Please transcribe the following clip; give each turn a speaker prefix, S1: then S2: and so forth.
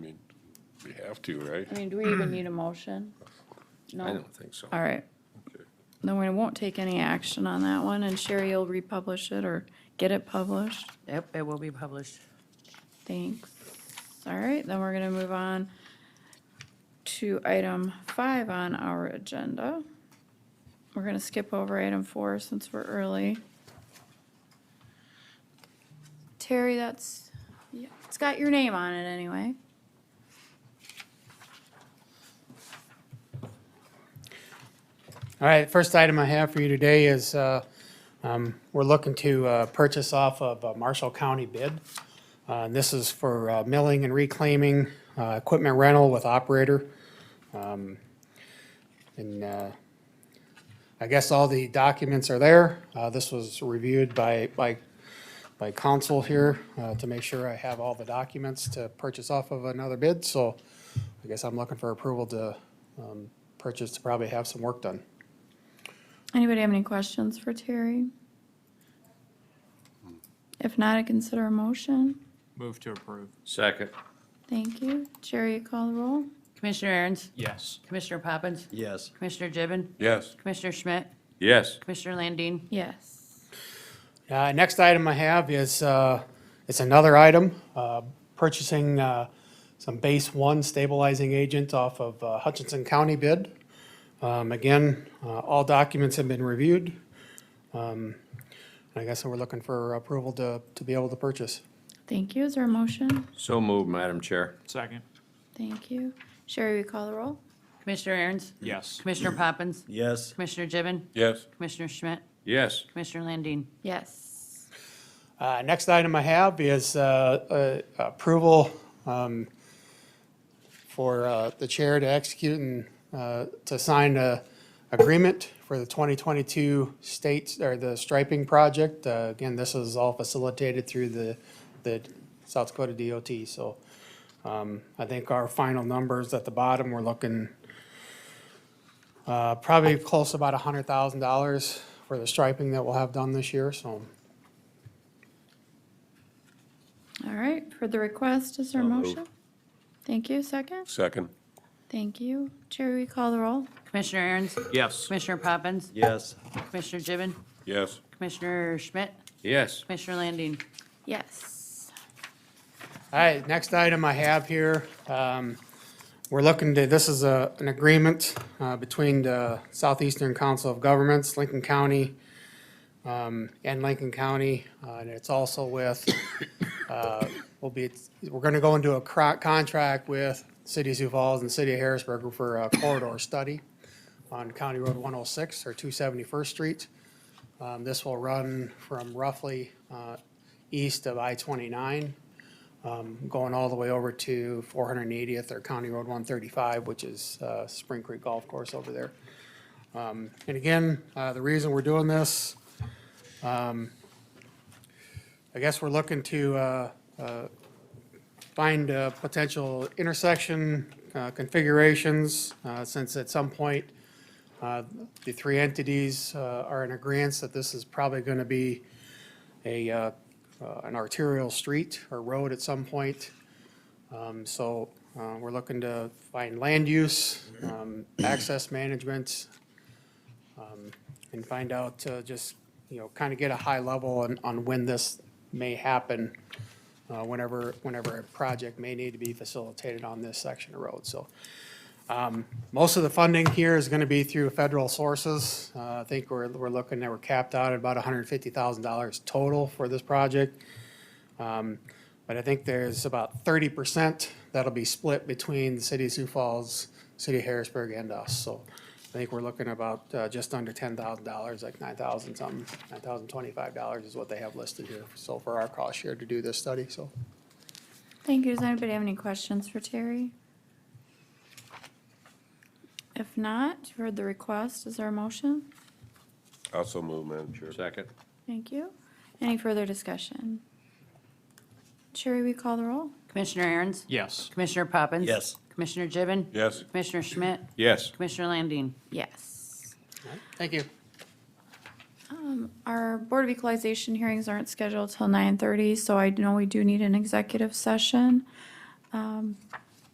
S1: have to, right?
S2: I mean, do we even need a motion?
S3: Hmm. I
S2: No?
S3: don't think so.
S2: All right. Then we won't take any action on that one, and Sherry will republish it or get it published.
S4: Yep, it will be published.
S2: Thanks. All right, then we're gonna move on to item five on our agenda. We're gonna skip over item four since we're early. Terry, that's, yeah, it's got your name on it anyway.
S5: All right, first item I have for you today is, uh, um, we're looking to, uh, purchase off of a Marshall County bid. Uh, and this is for, uh, milling and reclaiming, uh, equipment rental with operator. Um, And, uh, I guess all the documents are there. Uh, this was reviewed by, by, by council here, uh, to make sure I have all the documents to purchase off of another bid, so I guess I'm looking for approval to, um, purchase to probably have some work done.
S2: Anybody have any questions for Terry? If not, I consider a motion.
S6: Move to approve.
S3: Second,
S2: Thank you. Jerry, you call the roll?
S4: Commissioner Aaron's,
S6: Yes.
S4: Commissioner Poppins,
S6: Yes.
S4: Commissioner Gibbon,
S1: Yes.
S4: Commissioner Schmidt,
S3: yes,
S4: Commissioner Landine,
S2: Yes.
S5: Uh, next item I have is, uh, it's another item, uh, purchasing, uh, some base one stabilizing agent off of uh, Hutchinson County bid. Um, again, uh, all documents have been reviewed. Um, I guess we're looking for approval to, to be able to purchase.
S2: Thank you. Is there a motion?
S3: so moved, Madam Chair.
S6: Second.
S2: Thank you. Sherry, you call the roll?
S4: Commissioner Aaron's,
S6: Yes.
S4: Commissioner Poppins,
S6: Yes.
S4: Commissioner Gibbon,
S1: Yes.
S4: Commissioner Schmidt,
S3: Yes,
S4: Commissioner Landine.
S2: Yes.
S5: Uh, next item I have is, uh, uh, approval, um, for, uh, the chair to execute and, uh, to sign a agreement for the twenty twenty-two states, or the striping project. Uh, again, this is all facilitated through the, the South Dakota DOT, so, um, I think our final numbers at the bottom, we're looking, uh, probably close to about a hundred thousand dollars for the striping that we'll have done this year, so.
S2: All right, for the request, is there a
S3: So moved.
S2: motion? Thank you. Second?
S1: Second.
S2: Thank you. Jerry, we call the roll?
S4: Commissioner Aaron's,
S6: Yes.
S4: Commissioner Poppins,
S6: Yes.
S4: Commissioner Gibbon,
S1: Yes.
S4: Commissioner Schmidt,
S3: yes,
S4: Commissioner Landine.
S2: Yes.
S5: All right, next item I have here, um, we're looking to, this is a, an agreement, uh, between the Southeastern Council of Governments, Lincoln County, um, and Lincoln County, uh, and it's also with, uh, will be, we're gonna go into a cro- contract with City of Sioux Falls and City of Harrisburg for a corridor study on County Road one oh six or two seventy-first Street. Um, this will run from roughly, uh, east of I twenty-nine going all the way over to 480th or County Road 135, which is uh, Spring Creek Golf Course over there. Um, And again, uh, the reason we're doing this, um, I guess we're looking to uh, uh, find uh, potential intersection uh, configurations, uh, since at some point, uh, the three entities uh, are in agreement that this is probably going to be a uh, uh, an arterial street or road at some point. Um, So uh, we're looking to find land use, um, access management, um, and find out, uh, just, you know, kind of get a high level on, on when this may happen, uh, whenever, whenever a project may need to be facilitated on this section of road. So um, most of the funding here is going to be through federal sources. Uh, I think we're, we're looking, that we're capped out at about $150,000 total for this project. Um, But I think there's about 30% that'll be split between the city of Sioux Falls, city of Harrisburg, and us. So I think we're looking about uh, just under $10,000, like 9,000 something, $9,025 is what they have listed here. So for our cost share to do this study, so.
S2: Thank you. Does anybody have any questions for Terry? If not, you've heard the request. Is there a motion?
S1: Also move, Madam Chair.
S3: second,
S2: Thank you. Any further discussion? Sherry, we call the roll?
S4: Commissioner Aaron's,
S6: Yes.
S4: Commissioner Poppins.
S6: Yes.
S4: Commissioner Gibbon,
S1: Yes.
S4: Commissioner Schmidt,
S3: yes,
S4: Commissioner Landine.
S2: Yes.
S5: Thank you.
S2: Um, Our Board of Equalization hearings aren't scheduled till nine thirty, so I know we do need an executive session. Um,